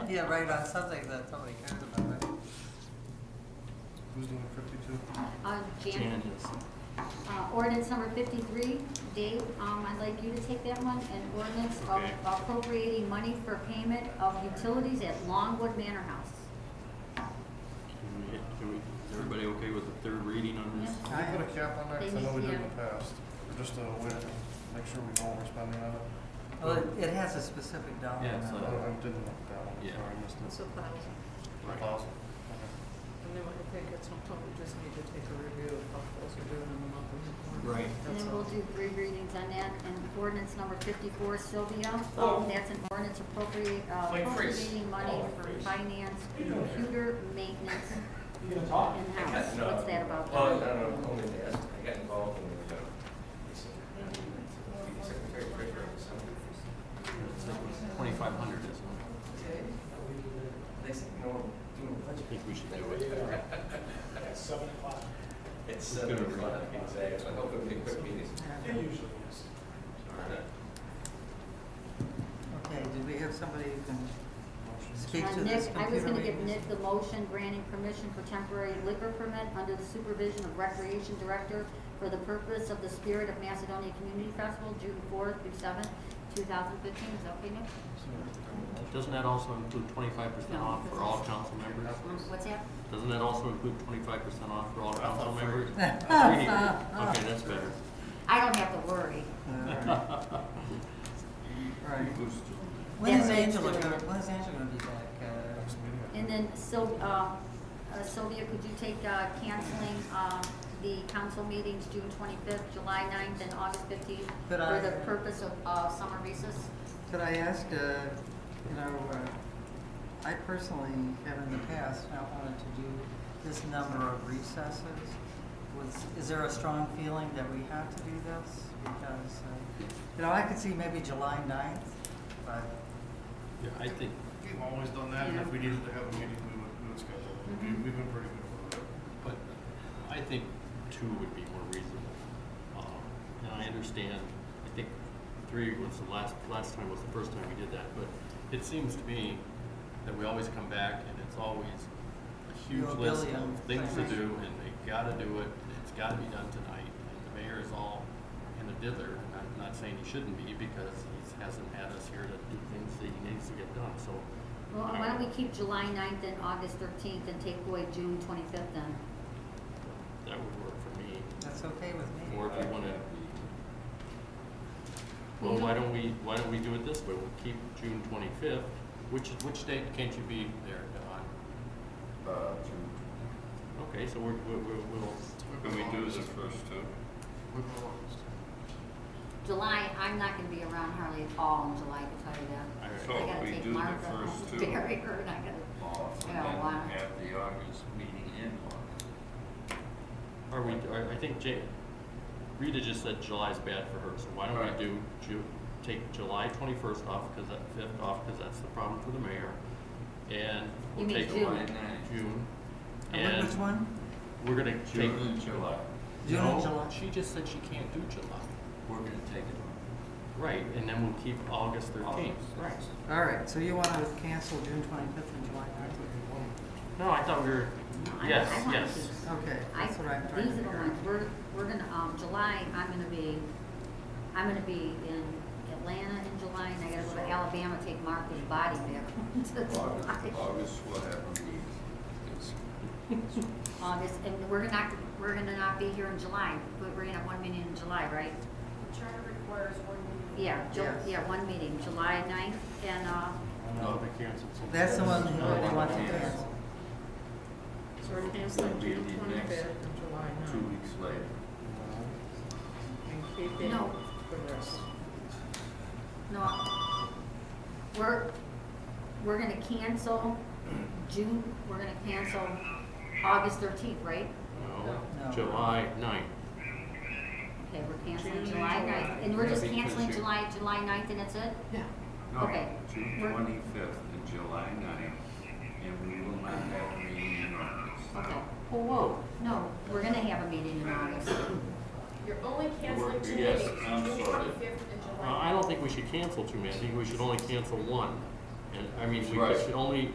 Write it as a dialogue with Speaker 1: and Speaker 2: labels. Speaker 1: yeah, right, on something that somebody cares about, right?
Speaker 2: Who's doing fifty-two?
Speaker 3: Uh, Jan,
Speaker 4: Janet is.
Speaker 3: uh, ordinance number fifty-three, Dave, um, I'd like you to take that one, an ordinance of
Speaker 4: Okay.
Speaker 3: appropriating money for payment of utilities at Longwood Manor House.
Speaker 4: Can we- can we- Is everybody okay with the third reading on this?
Speaker 3: Yes.
Speaker 2: Can we put a cap on that? 'Cause I know we did in the
Speaker 3: Yeah.
Speaker 2: past, or just a way to make sure we know what we're spending on it.
Speaker 1: Well, it, it has a specific dollar.
Speaker 4: Yeah,
Speaker 2: I
Speaker 4: so-
Speaker 1: amount.
Speaker 2: I didn't look at that one,
Speaker 4: Yeah.
Speaker 2: sorry, I missed
Speaker 5: It's
Speaker 2: it.
Speaker 5: a thousand.
Speaker 2: A thousand? Okay.
Speaker 5: And then I think at some point we just need to take a review of how those are doing in the monthly report.
Speaker 4: Right.
Speaker 3: And
Speaker 5: That's
Speaker 3: then we'll
Speaker 5: all.
Speaker 3: do three readings on that, and ordinance number fifty-four, Sylvia,
Speaker 6: Oh.
Speaker 3: that's an ordinance appropriate, uh,
Speaker 6: Wait, freeze.
Speaker 3: appropriating money
Speaker 6: Oh,
Speaker 3: for
Speaker 6: freeze.
Speaker 3: finance, computer maintenance
Speaker 6: You gonna talk?
Speaker 3: in-house, what's that about?
Speaker 6: Well, I don't know, only to ask, I got involved in the, uh, it's, uh, secretary treasurer or something.
Speaker 4: Twenty-five hundred is one.
Speaker 6: They said, you know, doing a
Speaker 4: I
Speaker 6: budget.
Speaker 4: think we should do it.
Speaker 7: At seven o'clock.
Speaker 6: It's
Speaker 4: It's
Speaker 6: seven
Speaker 4: gonna be-
Speaker 6: o'clock, exactly, I hope it'll be a quick meeting.
Speaker 7: It usually is.
Speaker 1: Okay, did we have somebody who can
Speaker 2: Motion.
Speaker 1: speak
Speaker 3: Uh,
Speaker 1: to
Speaker 3: Nick,
Speaker 1: this computer?
Speaker 3: I was gonna give
Speaker 1: maintenance?
Speaker 3: Nick the motion granting permission for temporary liquor permit under the supervision of Recreation Director for the purpose of the Spirit of Macedonia Community Festival, June fourth through seventh, two thousand fifteen, is that okay, Nick?
Speaker 4: Doesn't that also include twenty-five percent
Speaker 3: No,
Speaker 4: off
Speaker 3: this
Speaker 4: for all
Speaker 3: is-
Speaker 4: council members?
Speaker 3: What's that?
Speaker 4: Doesn't that also include twenty-five percent off for all council
Speaker 2: free.
Speaker 4: members? Free. Okay, that's better.
Speaker 3: I don't have to worry.
Speaker 1: All uh, right. Right. When
Speaker 3: That's
Speaker 1: is
Speaker 3: what it's
Speaker 1: Angela,
Speaker 3: doing.
Speaker 1: gonna- when is Angela gonna be back?
Speaker 2: Next
Speaker 1: Uh,
Speaker 2: meeting.
Speaker 3: And then Syl, uh, uh, Sylvia, could you take, uh, canceling, um, the council meetings, June twenty-fifth, July 9th, and August fifteenth,
Speaker 1: Could
Speaker 3: for
Speaker 1: I-
Speaker 3: the purpose of, uh, summer recess?
Speaker 1: Could I ask, uh, you know, uh, I personally have in the past not wanted to do this number of recesses. Was, is there a strong feeling that we have to do this? Because, uh, you know, I could see maybe July 9th, but,
Speaker 4: Yeah, I think,
Speaker 2: We've always done that, and if
Speaker 3: Yeah. Mm-hmm.
Speaker 2: we needed to have a meeting, we would, we would schedule it. We- We've been pretty good about it.
Speaker 4: but I think two would be more reasonable. Um, And I understand, I think three was the last, last time was the first time we did that, but it seems to me that we always come back and it's always a huge
Speaker 1: You're a
Speaker 4: list
Speaker 1: billion
Speaker 4: of things to
Speaker 1: things.
Speaker 4: do and they gotta do it, and it's gotta be done tonight. And the mayor is all in a dither, and I'm not saying he shouldn't be because he hasn't had us here to do things that he needs to get done, so.
Speaker 3: Well, why don't we keep July 9th and August thirteenth and take away June twenty-fifth then?
Speaker 4: That would work for me.
Speaker 1: that's okay with me.
Speaker 4: Or if we wanna, well, why don't we, why don't we do it this way, we'll keep June twenty-fifth, which, is- which date can't you be there, Don?
Speaker 6: Uh, June
Speaker 4: Okay, so we're, we're, we'll, we'll.
Speaker 8: Can we do the first two?
Speaker 3: July, I'm not gonna be around hardly at all in July, I can tell you that.
Speaker 4: All right.
Speaker 8: So
Speaker 3: I gotta
Speaker 8: we
Speaker 3: take
Speaker 8: do the
Speaker 3: Martha home
Speaker 8: first
Speaker 3: to
Speaker 8: two.
Speaker 3: bury her, and I gotta,
Speaker 8: off and
Speaker 3: Yeah,
Speaker 8: then
Speaker 3: why not?
Speaker 8: have the August meeting in August.
Speaker 4: Are we, are- I think Ja- Rita just said July's bad for her, so why don't
Speaker 8: Right.
Speaker 4: we do Ju- take July twenty-first off, cause that, fifth off, cause that's the problem for the mayor. And we'll
Speaker 3: You mean
Speaker 4: take
Speaker 3: June.
Speaker 4: July, June,
Speaker 1: And what-
Speaker 4: and
Speaker 1: Which one?
Speaker 4: we're gonna take.
Speaker 8: June and July,
Speaker 1: June and
Speaker 4: No,
Speaker 1: July.
Speaker 4: She just said she can't do July.
Speaker 8: we're gonna take it
Speaker 4: Right, and then we'll keep August
Speaker 8: off.
Speaker 4: thirteenth.
Speaker 8: Right.
Speaker 1: All right, so you want to cancel June 25th and July
Speaker 4: No, I thought we were,
Speaker 3: I-
Speaker 4: yes,
Speaker 3: I wanna
Speaker 4: yes.
Speaker 3: keep-
Speaker 1: 9th? Okay,
Speaker 3: I,
Speaker 1: that's what I'm trying to
Speaker 3: these are the
Speaker 1: figure
Speaker 3: ones, we're, we're gonna, um, July, I'm gonna be, I'm gonna be in Atlanta in July, and I gotta go to Alabama, take Martha's body back to
Speaker 8: August,
Speaker 3: July.
Speaker 8: August will have a meeting. It's-
Speaker 3: August, and we're gonna not, we're gonna not be here in July, but we're gonna have one meeting in July, right?
Speaker 9: Charter requires one meeting.
Speaker 3: Yeah, Ju-
Speaker 1: Yes.
Speaker 3: yeah, one meeting, July ninth, and, uh,
Speaker 4: No, they canceled
Speaker 1: out.
Speaker 4: something.
Speaker 1: That's the one
Speaker 8: No,
Speaker 1: who they want to
Speaker 8: it's-
Speaker 1: cancel.
Speaker 5: So we're canceling
Speaker 8: It'll be
Speaker 5: June
Speaker 8: the next
Speaker 5: twenty-fifth and July
Speaker 8: Two
Speaker 5: ninth
Speaker 8: weeks later.
Speaker 5: and keeping
Speaker 3: No.
Speaker 5: the rest.
Speaker 3: no, we're, we're gonna cancel June, we're gonna cancel August thirteenth, right?
Speaker 4: No,
Speaker 1: No.
Speaker 4: July ninth.
Speaker 3: Okay, we're
Speaker 5: June
Speaker 3: canceling
Speaker 5: and
Speaker 3: July
Speaker 5: July.
Speaker 3: ninth, and we're
Speaker 8: Yeah,
Speaker 3: just
Speaker 8: because
Speaker 3: canceling
Speaker 8: you-
Speaker 3: July, July ninth, and that's it?
Speaker 5: Yeah.
Speaker 8: No,
Speaker 3: Okay.
Speaker 8: June
Speaker 3: We're-
Speaker 8: twenty-fifth and July 9th, and we will not have a meeting in August.
Speaker 9: Uh-huh.
Speaker 3: Okay,
Speaker 4: Oh, whoa.
Speaker 3: no, we're gonna have a meeting in August.
Speaker 9: You're only canceling two
Speaker 8: Yes,
Speaker 9: meetings,
Speaker 8: I'm
Speaker 9: June
Speaker 8: sorry.
Speaker 9: twenty-fifth and
Speaker 4: Uh,
Speaker 9: July.
Speaker 4: I don't think we should cancel too many, I think we should only cancel one. And, I mean, we
Speaker 8: Right.
Speaker 4: should only